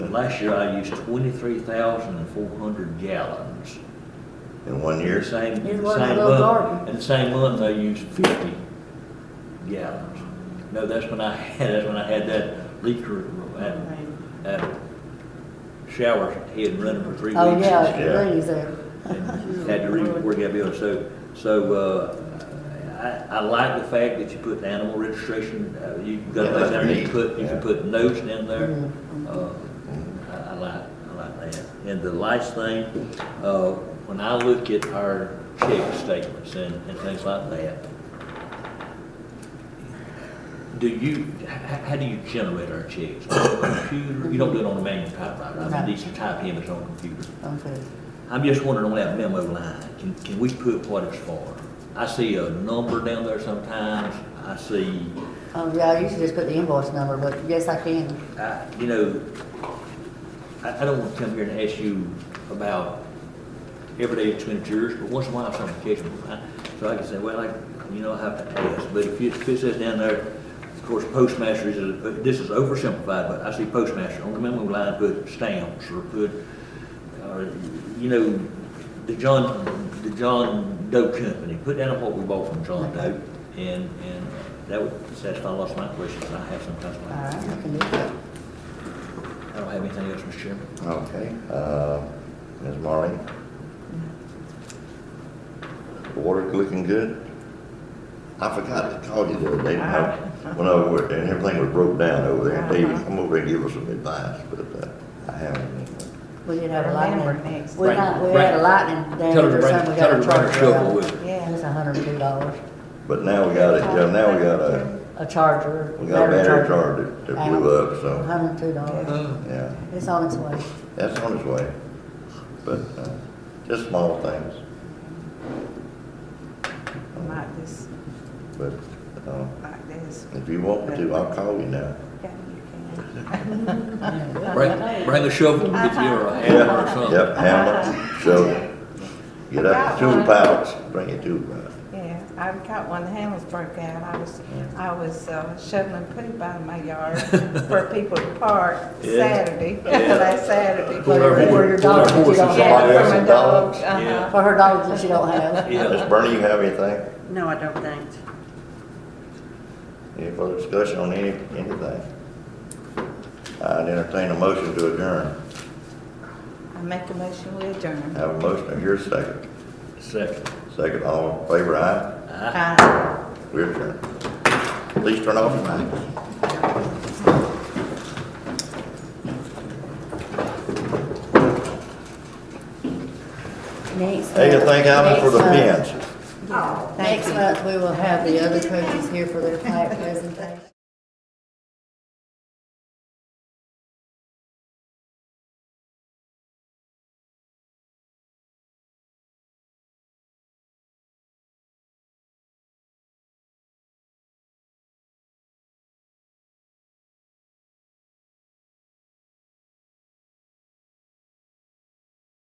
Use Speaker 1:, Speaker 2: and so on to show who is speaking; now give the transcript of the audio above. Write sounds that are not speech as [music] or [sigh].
Speaker 1: and last year I used twenty-three thousand and four hundred gallons.
Speaker 2: in one
Speaker 1: The
Speaker 2: year.
Speaker 1: same,
Speaker 3: It
Speaker 1: the
Speaker 3: wasn't
Speaker 1: same
Speaker 3: no
Speaker 1: month,
Speaker 3: garden.
Speaker 1: in the same month I used fifty gallons. No, that's when I [laughs] had, that's when I had that leaker, that, that shower head running for three weeks.
Speaker 3: Oh,
Speaker 2: yeah.
Speaker 3: yeah, it rains there.
Speaker 1: and [laughs] had to rework that bill. So, so, uh, I, I like the fact that you put the animal registration, uh, you got,
Speaker 2: Yeah, that's
Speaker 1: you
Speaker 2: neat.
Speaker 1: put, you can
Speaker 2: Yeah.
Speaker 1: put notes in there.
Speaker 3: Mhm.
Speaker 1: Uh, I, I like, I like that. And the last thing, uh, when I look at our check statements and, and things like that, do you, h- h- how do you generate our checks? On a computer? You don't do it on a manual typewriter. I
Speaker 3: No.
Speaker 1: mean, these are type image on a computer.
Speaker 3: Okay.
Speaker 1: I'm just wondering on that memo line, can, can we put what it's for? I see a number down there sometimes, I see,
Speaker 3: Um, yeah, I usually just put the invoice number, but yes, I can.
Speaker 1: I, you know, I, I don't want to come here and ask you about everyday expenditures, but once in a while something catches my eye. So I can say, well, I, you know, I have to ask, but if you, if it says down there, of course, postmaster is, a- this is oversimplified, but I see postmaster on the memo line, put stamps or put, or, you know, the John, the John Doe Company, put down what we bought from John Doe. And, and that would satisfy lots of my questions I have sometimes.
Speaker 3: All right, I can do that.
Speaker 1: I don't have anything else, Mr. Chairman.
Speaker 2: Okay, uh, Ms. Marley? The Water looking good? I forgot to call you the other day, when I went over, and everything was broke down over there, and David come over and give us some advice, but, uh, I haven't.
Speaker 3: We did have a
Speaker 4: Remember
Speaker 3: lightning.
Speaker 4: next.
Speaker 3: We got, we
Speaker 1: Right,
Speaker 3: had a
Speaker 1: right.
Speaker 3: lightning damage
Speaker 1: Tell her to
Speaker 3: or
Speaker 1: bring-
Speaker 3: something. We
Speaker 1: tell
Speaker 3: got
Speaker 1: her
Speaker 3: a
Speaker 1: to bring
Speaker 3: charge.
Speaker 1: her
Speaker 3: for
Speaker 1: shovel
Speaker 3: that.
Speaker 1: with her.
Speaker 4: Yeah.
Speaker 3: It's hundred and two dollars.
Speaker 2: But now we got it, now we got a,
Speaker 3: A charger.
Speaker 2: we got a battery charger that- that blew up,
Speaker 3: A
Speaker 2: so,
Speaker 3: Hundred and two dollars.
Speaker 2: yeah,
Speaker 3: It's on its way.
Speaker 2: that's on its way. But, uh, just small things,
Speaker 4: Like this,
Speaker 2: but, uh,
Speaker 4: like this.
Speaker 2: if you want me to, I'll call you now.
Speaker 4: Yeah, you can.
Speaker 1: Bring, bring a shovel and get you a hammer or
Speaker 2: Yeah,
Speaker 1: something.
Speaker 2: yep, hammer, shovel. Get up to the pallets, bring it to the pallets.
Speaker 4: Yeah, I got one, the handles broke out, I was, I was uh, shoveling poop out of my yard
Speaker 2: [laughs]
Speaker 4: for people to park
Speaker 1: Yeah.
Speaker 4: Saturday, [laughs]
Speaker 1: Yeah.
Speaker 4: last Saturday.
Speaker 1: Pull our
Speaker 3: Where
Speaker 1: horse-
Speaker 3: your
Speaker 1: pull our
Speaker 3: dog is, you
Speaker 1: horses
Speaker 3: don't
Speaker 1: off.
Speaker 4: Yeah,
Speaker 2: Somebody
Speaker 4: for my
Speaker 2: else's
Speaker 4: dog,
Speaker 2: dogs?
Speaker 4: uh-huh.
Speaker 3: For her dogs that she don't have.
Speaker 2: Miss
Speaker 1: Yeah.
Speaker 2: Bernie, you have anything?
Speaker 5: No, I don't think.
Speaker 2: Any further discussion on any, anything? I'd entertain a motion to adjourn.
Speaker 4: I make a motion, we adjourn.
Speaker 2: Have a motion, here's a second.
Speaker 1: Second.
Speaker 2: Second, all in favor, aye?
Speaker 4: Aye.
Speaker 2: We adjourn. Please turn off your mics.
Speaker 3: Next
Speaker 2: Hey,
Speaker 3: month-
Speaker 2: thank Alan for the
Speaker 3: next month-
Speaker 2: pins.
Speaker 4: Oh, thank
Speaker 3: Next
Speaker 4: you.
Speaker 3: month, we will have the other coaches here for their plaque presentation.